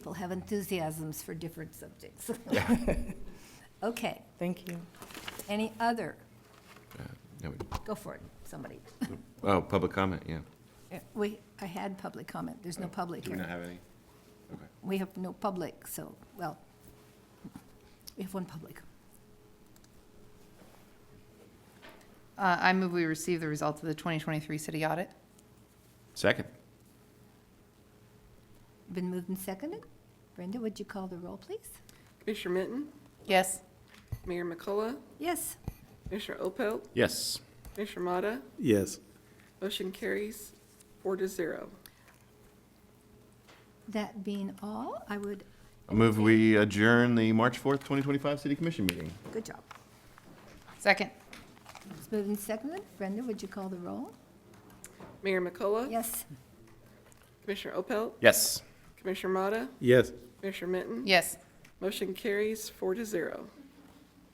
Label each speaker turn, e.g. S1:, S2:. S1: People have enthusiasms for different subjects. Okay,
S2: Thank you.
S1: any other?
S3: Yeah, we-
S1: Go for it, somebody.
S3: Oh, public comment, yeah.
S1: We, I had public comment, there's no public
S3: Oh, Do we not
S1: here.
S3: have any?
S1: We have no public, so, well, we have one public.
S4: Uh, I move we receive the results of the 2023 city audit.
S3: Second.
S1: Been moved and seconded. Brenda, would you call the roll, please?
S5: Commissioner Mitten,
S4: Yes.
S5: Mayor McCullough,
S1: Yes,
S5: Commissioner Opel,
S3: Yes.
S5: Commissioner Motta,
S6: Yes.
S5: motion carries four to zero.
S1: that being all, I would,
S3: I move we adjourn the March 4th, 2025 City Commission meeting.
S1: good job.
S4: Second.
S1: It's moved and seconded. Brenda, would you call the roll?
S5: Mayor McCullough,
S1: Yes,
S5: Commissioner Opel,
S3: Yes.
S5: Commissioner Motta,
S6: Yes.
S5: Commissioner Mitten,
S4: Yes.
S5: motion carries four to zero.